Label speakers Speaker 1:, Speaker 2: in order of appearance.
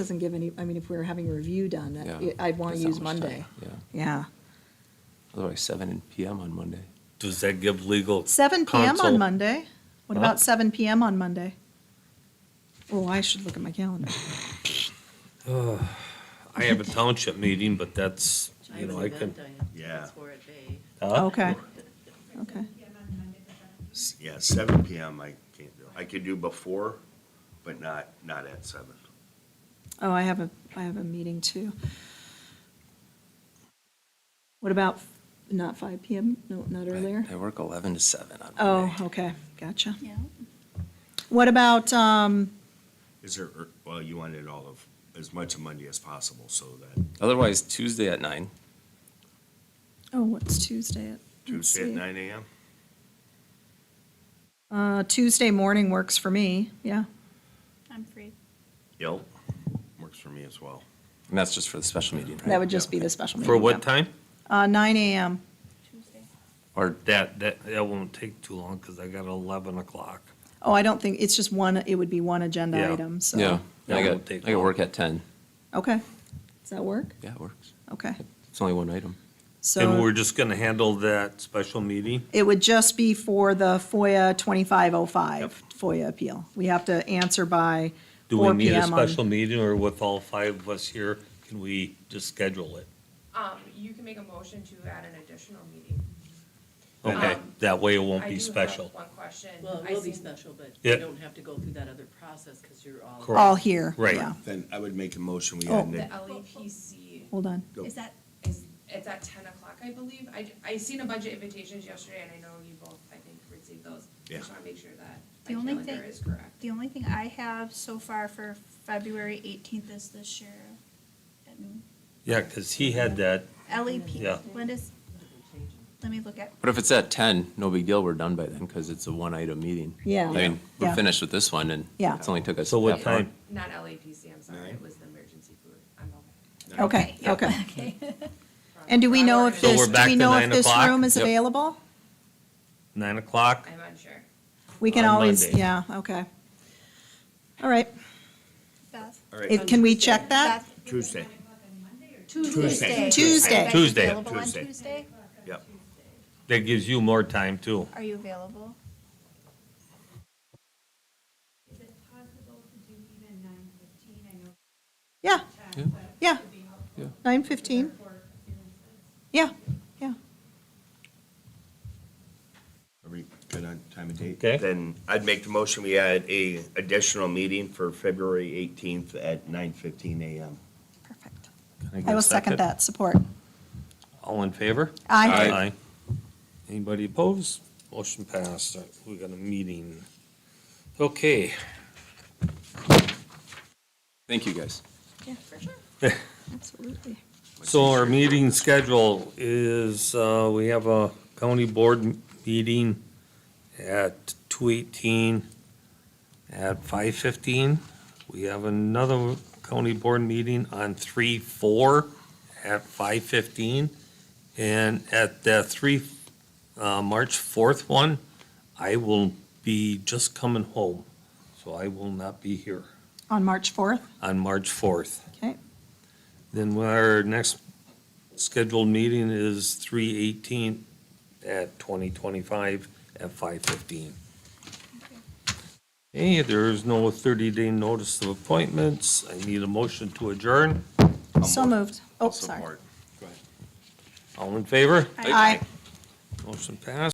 Speaker 1: doesn't give any, I mean, if we were having a review done, that-
Speaker 2: Yeah.
Speaker 1: I'd want to
Speaker 2: That's not
Speaker 1: use
Speaker 2: much time,
Speaker 1: Monday.
Speaker 2: Yeah,
Speaker 1: Yeah.
Speaker 2: otherwise seven PM on Monday.
Speaker 3: Does that give legal?
Speaker 1: Seven PM on
Speaker 3: counsel-
Speaker 1: Monday? What
Speaker 3: Huh?
Speaker 1: about seven PM on Monday? Oh, I should look at my calendar.
Speaker 3: I have a township meeting, but that's, you
Speaker 4: I have
Speaker 3: know,
Speaker 4: an
Speaker 3: I can.
Speaker 4: event I have to
Speaker 5: Yeah.
Speaker 4: transfer at bay.
Speaker 3: Huh?
Speaker 1: Oh, Okay. Okay.
Speaker 5: S- Yeah, seven PM I can't do. I could do before, but not, not at seven.
Speaker 1: Oh, I have a, I have a meeting too. What about, f- not five PM? No, not earlier?
Speaker 2: I I work eleven to seven on
Speaker 1: Oh,
Speaker 2: Monday.
Speaker 1: okay, gotcha. Yeah. What about, um,
Speaker 5: Is there, er, well, you wanted all of, as much of Monday as possible, so that
Speaker 2: Otherwise Tuesday at nine,
Speaker 1: oh, what's Tuesday at? let's
Speaker 5: Tuesday at
Speaker 1: see.
Speaker 5: nine AM?
Speaker 1: Uh, Tuesday morning works for me, yeah.
Speaker 6: I'm free.
Speaker 5: Yep, works for me as well.
Speaker 2: and that's just for the special meeting, right?
Speaker 1: That would just be the special meeting.
Speaker 3: For
Speaker 1: yeah.
Speaker 3: what time?
Speaker 1: Uh, nine AM.
Speaker 6: Tuesday.
Speaker 3: Or that, that, that won't take too long, because I got eleven o'clock.
Speaker 1: Oh, I don't think, it's just one, it would be one agenda
Speaker 3: Yeah.
Speaker 1: item, so.
Speaker 2: Yeah,
Speaker 3: That
Speaker 2: I
Speaker 3: won't
Speaker 2: got, I
Speaker 3: take
Speaker 2: got
Speaker 3: long.
Speaker 2: work at ten.
Speaker 1: Okay. Does that work?
Speaker 2: Yeah, it works.
Speaker 1: Okay.
Speaker 2: It's only one item.
Speaker 3: And we're
Speaker 1: So
Speaker 3: just gonna handle that special meeting?
Speaker 1: it would just be for the FOIA 2505 FOIA appeal. We have to answer by
Speaker 3: Do we
Speaker 1: 4
Speaker 3: need a
Speaker 1: PM on-
Speaker 3: special meeting, or with all five of us here, can we just schedule it?
Speaker 7: Um, you can make a motion to add an additional meeting.
Speaker 3: Okay,
Speaker 7: Um,
Speaker 3: that way it won't
Speaker 7: I
Speaker 3: be
Speaker 7: do have
Speaker 3: special.
Speaker 7: One question.
Speaker 4: Well,
Speaker 7: I
Speaker 4: it will be
Speaker 7: seen-
Speaker 4: special, but
Speaker 3: Yeah.
Speaker 4: you don't have to go through that other process because you're all.
Speaker 3: Correct.
Speaker 1: all here.
Speaker 3: Right.
Speaker 1: yeah.
Speaker 5: Then I would make a motion, we
Speaker 1: Oh.
Speaker 5: add
Speaker 7: The
Speaker 5: Nick.
Speaker 7: LEPC
Speaker 1: Hold on.
Speaker 5: Go.
Speaker 6: Is that,
Speaker 7: is, it's at ten o'clock, I believe. I, I seen a bunch of invitations yesterday and I know you both, I think, received those. I Just
Speaker 5: Yeah.
Speaker 7: wanna make sure that
Speaker 6: The
Speaker 7: my
Speaker 6: only
Speaker 7: calendar
Speaker 6: thing-
Speaker 7: is correct.
Speaker 6: the only thing I have so far for February eighteenth is the sheriff. and
Speaker 3: Yeah, because he had that, Yeah.
Speaker 6: LEP, when does, let me look at,
Speaker 2: But if it's at ten, no big deal, we're done by then, because it's a one-item meeting.
Speaker 1: Yeah.
Speaker 2: I mean,
Speaker 1: Yeah.
Speaker 2: we're finished with this one, and
Speaker 1: Yeah.
Speaker 2: it's only took us.
Speaker 3: so what
Speaker 2: half an hour.
Speaker 3: time?
Speaker 7: Not LEPC, I'm sorry.
Speaker 5: Nine.
Speaker 7: It was the emergency food. I'm
Speaker 1: Okay,
Speaker 7: okay.
Speaker 6: Yeah.
Speaker 1: okay.
Speaker 6: okay.
Speaker 1: And do we know if
Speaker 7: So
Speaker 1: this,
Speaker 3: we're
Speaker 1: do
Speaker 3: back
Speaker 1: we
Speaker 3: to
Speaker 1: know if
Speaker 3: nine
Speaker 1: this
Speaker 3: o'clock?
Speaker 1: room is
Speaker 2: Yep.
Speaker 1: available?
Speaker 3: Nine o'clock?
Speaker 7: I'm unsure.
Speaker 1: We can
Speaker 3: On
Speaker 1: always,
Speaker 3: Monday.
Speaker 1: yeah, okay. All right.
Speaker 6: Beth?
Speaker 5: All right,
Speaker 1: It- Can we check that?
Speaker 6: Beth?
Speaker 5: Tuesday,
Speaker 6: Tuesday.
Speaker 1: Tuesday.
Speaker 6: Are you
Speaker 3: Tuesday.
Speaker 6: Available on
Speaker 5: Tuesday.
Speaker 6: Tuesday?
Speaker 5: yep.
Speaker 3: That gives you more time, too.
Speaker 6: Are you available?
Speaker 8: Is it possible to do even nine fifteen? I know
Speaker 1: Yeah,
Speaker 8: that, but
Speaker 1: yeah.
Speaker 8: it'd be helpful
Speaker 1: Nine fifteen.
Speaker 8: for businesses.
Speaker 1: Yeah, yeah.
Speaker 5: Are we good on time and date?
Speaker 3: Okay.
Speaker 5: Then I'd make the motion, we add a additional meeting for February eighteenth at nine fifteen AM.
Speaker 1: Perfect. I will second that, support.
Speaker 3: All in favor?
Speaker 1: Aye.
Speaker 3: Anybody opposed? Motion passed. We got a meeting. Okay,
Speaker 2: Thank you, guys.
Speaker 1: Yeah, for sure. Absolutely.
Speaker 3: so our meeting schedule is, uh, we have a county board m- meeting at two eighteen at five fifteen. We have another county board meeting on three four at five fifteen. And at the three, uh, March fourth one, I will be just coming home. So I will not be here
Speaker 1: On March fourth,
Speaker 3: on March fourth.
Speaker 1: okay?
Speaker 3: Then our next scheduled meeting is three eighteen at twenty twenty-five at five fifteen. Hey, there is no thirty-day notice of appointments. I need a motion to adjourn.
Speaker 1: So moved. Oh, sorry.
Speaker 5: Support.
Speaker 3: All in favor?
Speaker 1: Aye.
Speaker 3: Motion passed.